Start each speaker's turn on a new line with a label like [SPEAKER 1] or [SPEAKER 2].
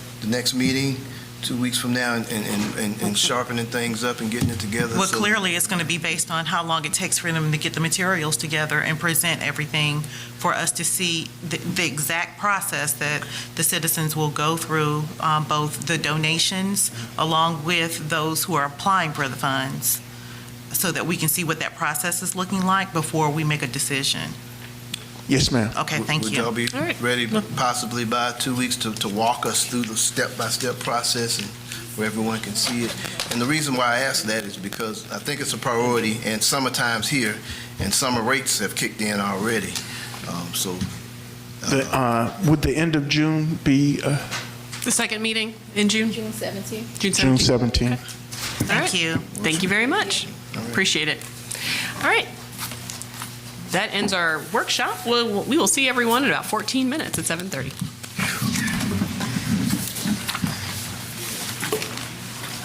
[SPEAKER 1] the next meeting, two weeks from now, and- and and and sharpening things up and getting it together.
[SPEAKER 2] Well,
[SPEAKER 1] so-
[SPEAKER 2] clearly, it's going to be based on how long it takes for them to get the materials together and present everything for us to see the- the exact process that the citizens will go through, um, both the donations along with those who are applying for the funds, so that we can see what that process is looking like before we make a decision.
[SPEAKER 3] Yes, ma'am.
[SPEAKER 2] Okay,
[SPEAKER 1] Would-
[SPEAKER 2] thank
[SPEAKER 1] Would
[SPEAKER 2] you.
[SPEAKER 1] y'all be
[SPEAKER 4] All right.
[SPEAKER 1] ready possibly by two weeks to, to walk us through the step-by-step process and where everyone can see it? And the reason why I ask that is because I think it's a priority, and summertime's here, and summer rates have kicked in already. Um, So,
[SPEAKER 3] The, uh, Would the end of June be uh,
[SPEAKER 4] The second meeting in June?
[SPEAKER 5] June 17th.
[SPEAKER 3] June
[SPEAKER 4] 17th.
[SPEAKER 3] 17th?
[SPEAKER 2] Thank you.
[SPEAKER 4] Thank you very much. Appreciate it. All right. That ends our workshop. We'll- We will see everyone in about 14 minutes at 7:30.